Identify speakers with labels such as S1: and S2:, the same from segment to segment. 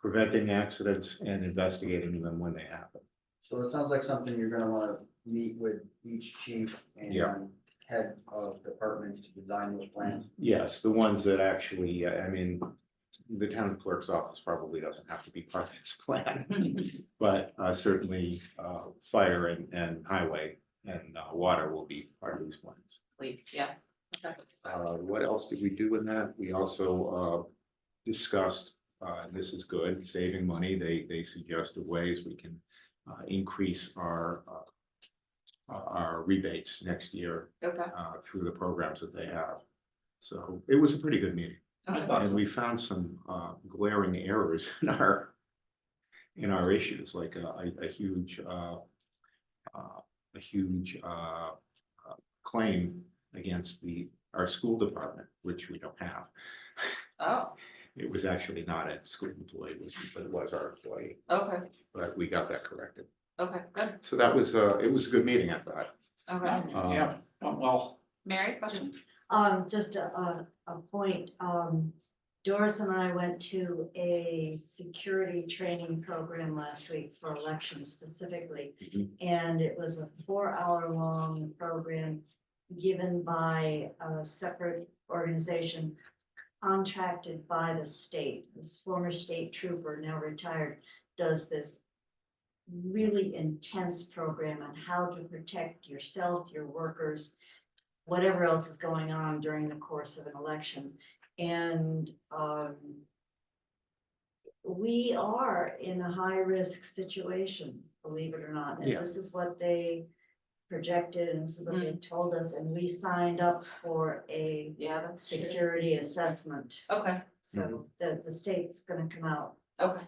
S1: preventing accidents and investigating them when they happen.
S2: So it sounds like something you're gonna wanna meet with each chief
S1: Yeah.
S2: and head of departments to design those plans.
S1: Yes, the ones that actually, I mean, the town clerk's office probably doesn't have to be part of this plan. But uh, certainly, uh, fire and, and highway and uh, water will be part of these plans.
S3: please, yeah. Okay.
S1: Uh, what else did we do in that? We also, uh, discussed, uh, and this is good, saving money. They, they suggested ways we can, uh, increase our, uh, our rebates next year,
S3: Okay.
S1: uh, through the programs that they have. So it was a pretty good meeting
S3: Okay.
S1: and we found some, uh, glaring errors in our, in our issues, like a, a- a huge, uh, uh, a huge, uh, uh, claim against the, our school department, which we don't have.
S3: Oh,
S1: It was actually not a school employee, it was- but it was our employee,
S3: okay,
S1: but we got that corrected.
S3: okay, good,
S1: So that was, uh, it was a good meeting, I thought.
S3: okay.
S1: Um,
S4: Yeah, oh, well,
S3: Mary, question?
S5: Um, just a, a, a point, um, Doris and I went to a security training program last week for elections specifically.
S1: Mhm.
S5: And it was a four-hour-long program given by a separate organization contracted by the state. This former state trooper, now retired, does this really intense program on how to protect yourself, your workers, whatever else is going on during the course of an election. And um, we are in a high-risk situation, believe it or not. And
S1: Yeah.
S5: this is what they projected and this is what they told us. And we signed up for a
S3: Yeah, that's true.
S5: security assessment.
S3: Okay,
S1: Hmm.
S5: So the, the state's gonna come out,
S3: okay,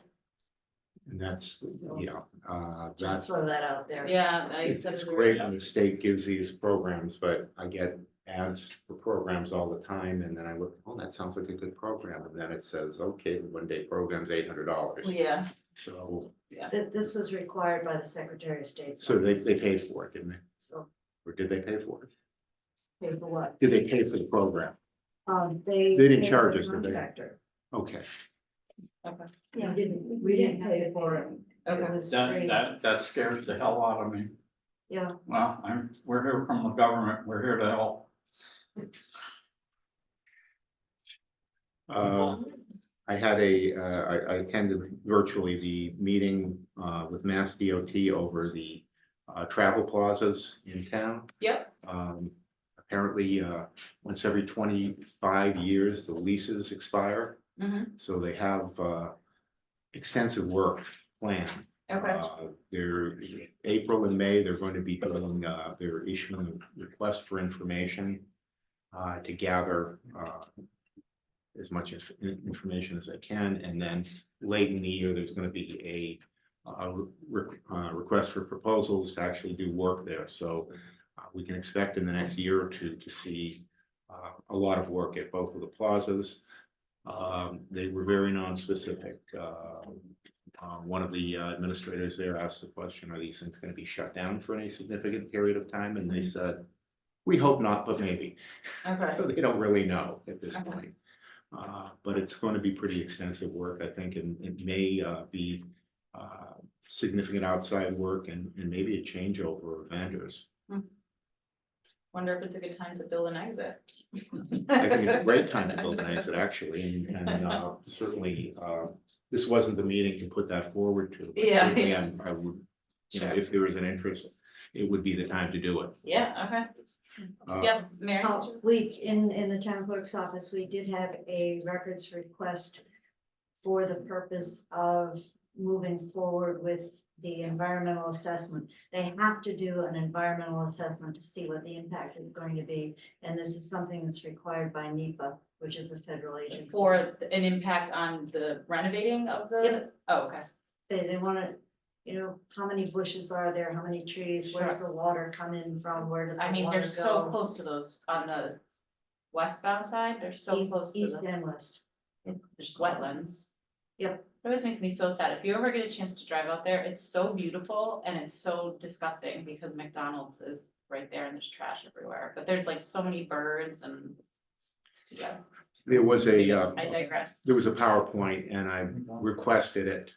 S1: And that's, yeah, uh,
S5: just
S1: that's,
S5: throw that out there.
S3: yeah. I
S1: it's
S3: said
S1: it's
S3: we were-
S1: great when the state gives these programs, but I get ads for programs all the time, and then I look, oh, that sounds like a good program, and then it says, okay, the one day program's eight hundred dollars.
S3: Yeah,
S1: So,
S5: That this was required by the Secretary of State's.
S1: so they,
S5: office.
S1: they paid for it, didn't they?
S5: So
S1: Or did they pay for it?
S5: pay for what?
S1: Did they pay for the program?
S5: Um, they.
S1: They didn't
S5: paid the
S1: charge us, did they?
S5: Contractor.
S1: Okay,
S3: okay,
S5: We didn't, we didn't pay for it. It
S3: okay,
S5: was
S4: that,
S5: free.
S4: that, that scares the hell out of me.
S5: Yeah,
S4: Well, I'm, we're here from the government, we're here to help.
S1: uh, I had a, uh, I, I attended virtually the meeting, uh, with Mass DOT over the, uh, travel plazas in town.
S3: yep,
S1: Um, apparently, uh, once every twenty-five years, the leases expire,
S3: mhm,
S1: so they have, uh, extensive work planned.
S3: okay,
S1: Uh, They're, April and May, they're going to be doing, uh, they're issuing requests for information, uh, to gather, uh, as much inf- information as they can, and then late in the year, there's gonna be a, uh, re- uh, request for proposals to actually do work there, so uh, we can expect in the next year or two to see, uh, a lot of work at both of the plazas. Um, they were very nonspecific, uh, uh, one of the uh, administrators there asked the question, are these things gonna be shut down for any significant period of time? And they
S3: Mm-hmm.
S1: said, we hope not, but maybe.
S3: okay,
S1: So they don't really know at this
S3: Okay.
S1: point. Uh, but it's gonna be pretty extensive work, I think, and it may, uh, be, uh, significant outside work and, and maybe a changeover of vendors.
S3: wonder if it's a good time to build an exit.
S1: I think it's a great time to build an exit, actually, and, and, uh, certainly, uh, this wasn't the meeting to put that forward to. but
S3: Yeah,
S1: certainly
S3: yeah.
S1: I'm- I would you know,
S3: Sure.
S1: if there was an interest, it would be the time to do it.
S3: Yeah, okay,
S1: Uh,
S3: yes, Mary,
S5: Oh, we, in, in the town clerk's office, we did have a records request for the purpose of moving forward with the environmental assessment. They have to do an environmental assessment to see what the impact is going to be, and this is something that's required by NEPA, which is a federal agency.
S3: for an impact on the renovating of the, oh, okay,
S5: They, they wanna, you know, how many bushes are there, how many trees, where's the water coming from, where does the
S3: I
S5: water
S3: mean,
S5: go?
S3: they're so close to those on the westbound side, they're so
S5: East-
S3: close to
S5: East
S3: the,
S5: and west.
S3: there's wetlands.
S5: Yep.
S3: It always makes me so sad, if you ever get a chance to drive out there, it's so beautiful and it's so disgusting because McDonald's is right there and there's trash everywhere, but there's like so many birds and. it's too bad.
S1: There was a, uh,
S3: I digress.
S1: there was a PowerPoint and I requested it